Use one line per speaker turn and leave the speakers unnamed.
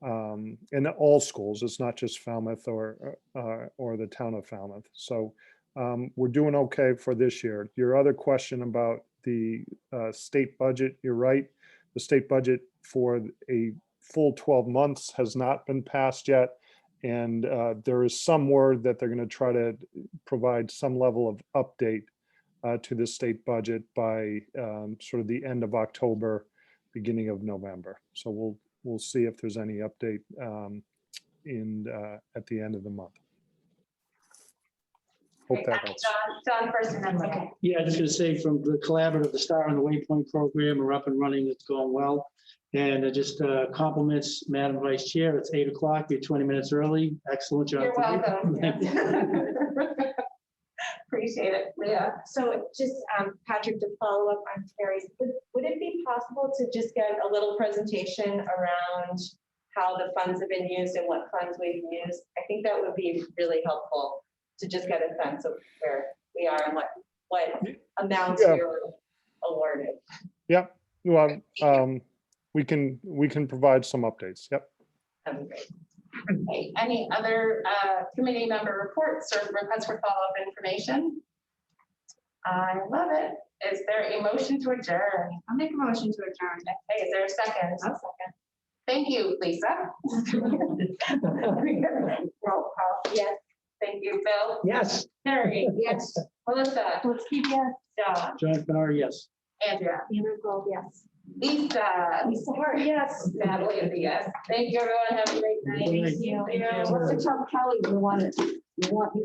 um, in all schools. It's not just Falmouth or, uh, or the town of Falmouth. So um, we're doing okay for this year. Your other question about the uh, state budget, you're right. The state budget for a full 12 months has not been passed yet. And uh, there is some word that they're going to try to provide some level of update uh, to the state budget by um, sort of the end of October, beginning of November. So we'll, we'll see if there's any update um, in, uh, at the end of the month. Hope
Great.
that helps.
John, John first and then Linda.
Yeah, I was gonna say from the collaborative, the Star and the Waypoint program are up and running. It's going well. And it just uh, compliments Madam Vice Chair. It's eight o'clock. You're twenty minutes early. Excellent job.
You're welcome. Appreciate it, Leah.
So just, um, Patrick, to follow up on Terry's, would, would it be possible to just get a little presentation around how the funds have been used and what funds we've used? I think that would be really helpful to just get a sense of where we are and what, what amounts
Yeah.
you're awarded.
Well, um, we can, we can provide some updates. Yep.
That'd be great.
Okay, Any other uh, committee member reports or requests for follow-up information? I love it. Is there a motion to adjourn?
I'll make a motion to adjourn.
Hey, is there a second?
I'll
second. Thank you, Lisa. Roll call. Yes. Thank you, Bill.
Yes,
Terry. Yes. Melissa.
Let's keep, yeah.
John.
John Fenner, yes.
Andrea.
Andrew Gold, yes.
Lisa.
Lisa Hart, yes.
Natalie is a yes. Thank you, everyone. Have a great night.
Good night.
Yeah, what's the Tom Kelly, we want it, we want